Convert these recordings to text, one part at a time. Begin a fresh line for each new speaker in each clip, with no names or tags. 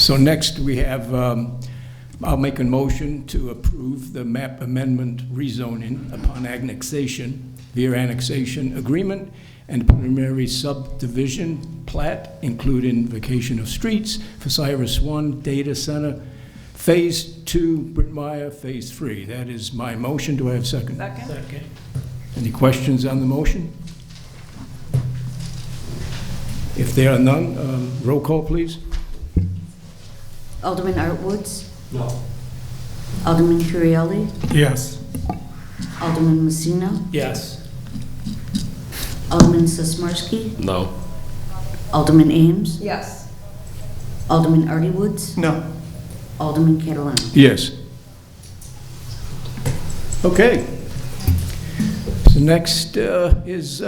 So next, we have, um, I'll make a motion to approve the map amendment rezoning upon annexation, via annexation agreement and preliminary subdivision plat, including vacation of streets for Cyrus One Data Center, Phase Two, Britt Meyer, Phase Three. That is my motion. Do I have a second?
Second?
Second.
Any questions on the motion? If there are none, um, roll call, please.
Alderman Art Woods,
No.
Alderman Currielli,
Yes.
Alderman Messina,
Yes.
Alderman Sosmarsky,
No.
Alderman Ames,
Yes.
Alderman Artie Woods,
No.
Alderman Catalano.
Yes. Okay. So next uh, is,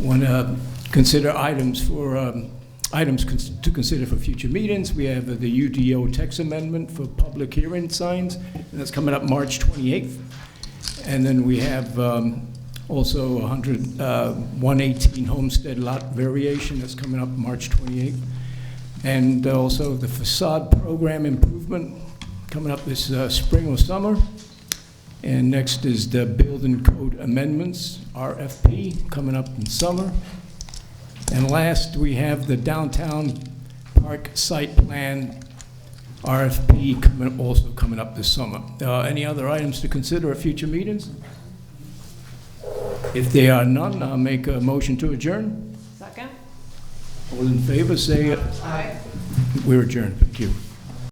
want to consider items for, um, items cons- to consider for future meetings. We have the UDO text amendment for public hearing signs, and that's coming up March 28th. And then we have um, also 100, uh, 118 Homestead Lot Variation that's coming up March 28th. And also the facade program improvement coming up this uh, spring or summer. And next is the building code amendments, RFP, coming up in summer. And last, we have the downtown park site plan, RFP, coming- also coming up this summer. Uh, Any other items to consider at future meetings? If there are none, I'll make a motion to adjourn.
Second?
All in favor, say
Aye.
we're adjourned. Thank you.